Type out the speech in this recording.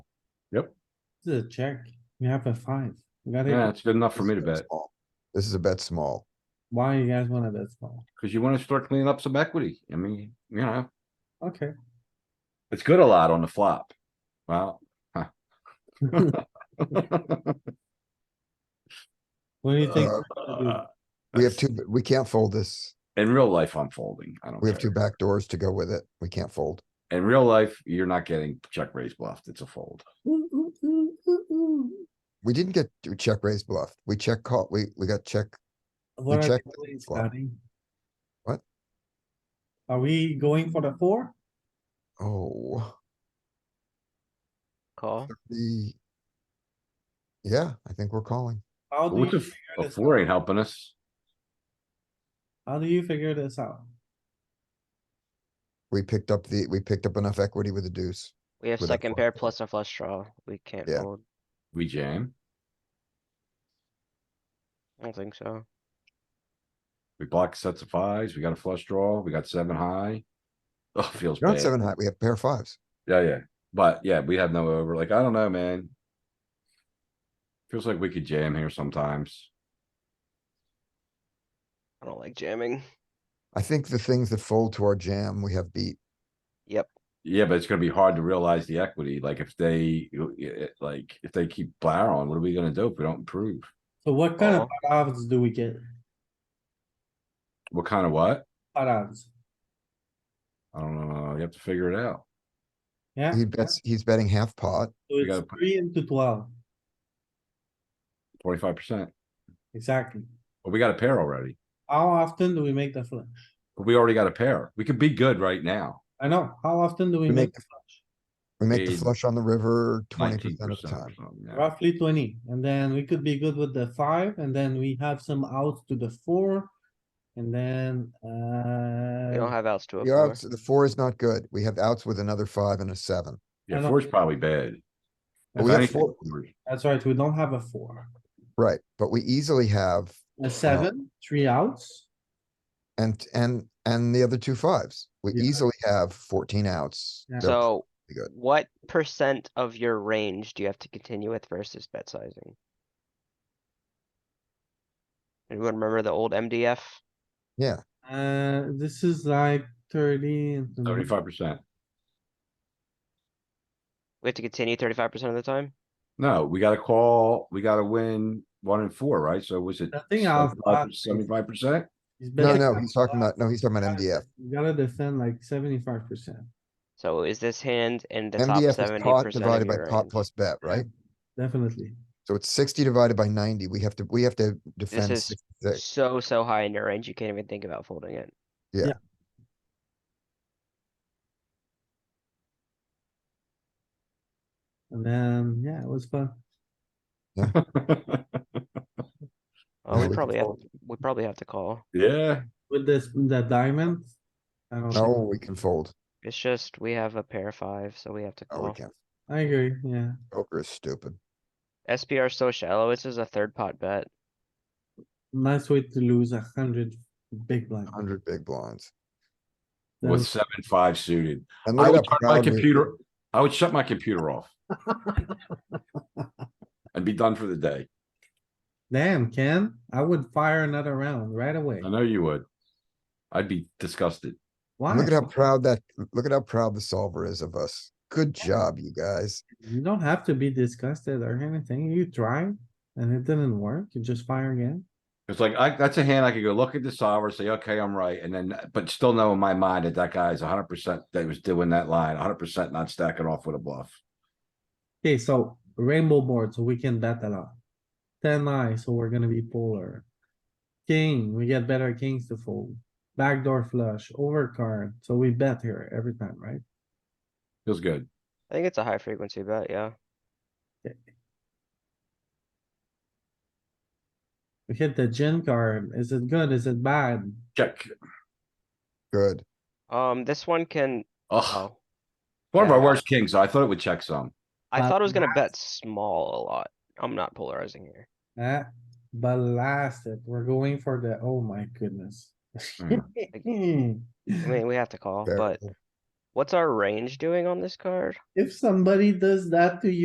Yep. This is a check. You have a five. You got Yeah, it. it's good enough for This me is to a bet, small. This is a bet small. Why you guys wanna bet small? because you wanna start cleaning up some equity. I mean, you know, Okay. it's good a lot on the flop. Wow. What do you think? Uh, we're gonna do? We have two, we can't fold this. In real life, I'm folding. I don't We have two care. back doors to go with it. We can't fold. In real life, you're not getting check raise bluffed. It's a fold. Ooh, ooh, ooh, ooh, ooh. We didn't get to check raise bluff. We check call, we, we got check. What are checked we doing, flop. Scotty? What? Are we going for the four? Oh, Call. the. Yeah, I think we're calling. How But do What's a, you, f- figure a this four ain't helping us. how do you figure this out? We picked up the, we picked up enough equity with the deuce. We have With a second four. pair plus a flush draw. We can't Yeah. fold. We jam, I don't think so. we block sets of fives, we got a flush draw, we got seven high. Oh, feels You're on bad. seven high. We have pair fives. Yeah, yeah. But yeah, we have no over. Like, I don't know, man. Feels like we could jam here sometimes. I don't like jamming. I think the things that fold to our jam, we have beat. Yep. Yeah, but it's gonna be hard to realize the equity. Like if they, you- it- like if they keep blaring, what are we gonna do if we don't improve? So what kind of Call. Oh. pot odds do we get? What kind of what? Pot odds? I don't know. You have to figure it out. Yeah, He so bets, he's betting half pot. it's gotta put- three into twelve, Twenty-five percent. exactly. But we got a pair already. How often do we make the flush? But we already got a pair. We could be good right now. I know, how often do we We make make the flush? We make the Eight. flush on the river twenty Nineteen percent of the percent Oh, or time. something. yeah. Roughly twenty, and then we could be good with the five, and then we have some outs to the four. And then, We don't uh, have outs to a The four. outs, the four is not good. We have outs with another five and a seven. I Yeah, don't- four's probably bad. But If we have anything, four- we're- that's right, we don't have a four, Right, but we easily have a seven, three outs. and, and, and the other two fives. We Yeah. easily have fourteen outs. Yeah. They're So pretty good. what percent of your range do you have to continue with versus bet sizing? Anyone remember the old MDF? Yeah, Uh, this is like thirty. and some- Thirty-five percent. We have to continue thirty-five percent of the time? No, we gotta call, we gotta win one and four, right? So was it I think I'll- seventy-five percent? He's no, betting no, like he's talking that. about, no, he's talking about MDF. You gotta defend like seventy-five percent, So is this hand in the top MDF is seventy pot percent of divided by your pot range? plus bet, right? definitely. So it's sixty divided by ninety. We have to, we have to defend is- sixty-six. So, so high in your range, you can't even think about folding it. And then, yeah, it was fun. Yeah, Oh, we we can probably have, fold. we probably have to call. Yeah, With this, the diamond. I don't think- No, we can fold. It's just, we have a pair five, so we have to No, Oh, we call. can't. I agree, yeah. Poker is stupid. SPR so shallow, this is a third pot bet. Nice way to lose a hundred big blind. Hundred big blinds. That with was- seven, five suited. And I look would at turn that my crowd move. computer, I would shut my computer off. And be done for the day. Damn, Ken, I would fire another round right away. I know you would. I'd be disgusted. Why? Look at how proud that, look at how proud the solver is of us. Good job, you guys. You don't have to be disgusted or anything. You try and it didn't work, you just fire again. It's like, I, that's a hand I could go look at the solver, say, okay, I'm right, and then, but still know in my mind that that guy's hundred percent, that was doing that line, hundred percent not stacking off with a bluff. Okay, so rainbow board, so we can bet a lot. Ten eye, so we're gonna be polar. King, we get better kings to fold. Backdoor flush, overcard, so we bet here every time, right? Feels good. I think it's a high frequency bet, yeah. We hit the gin card. Is it good? Is it bad? Check. Good. Um, this one can, Oh. oh, One of our Yeah. worst kings, though. I thought it would check some. I Uh, thought it was gonna bet small a lot. I'm not polarizing here. Ah, blasted. We're going for the, oh my goodness. Mm. I mean, we have to call, but Terrible. what's our range doing on this card? If somebody does that to you.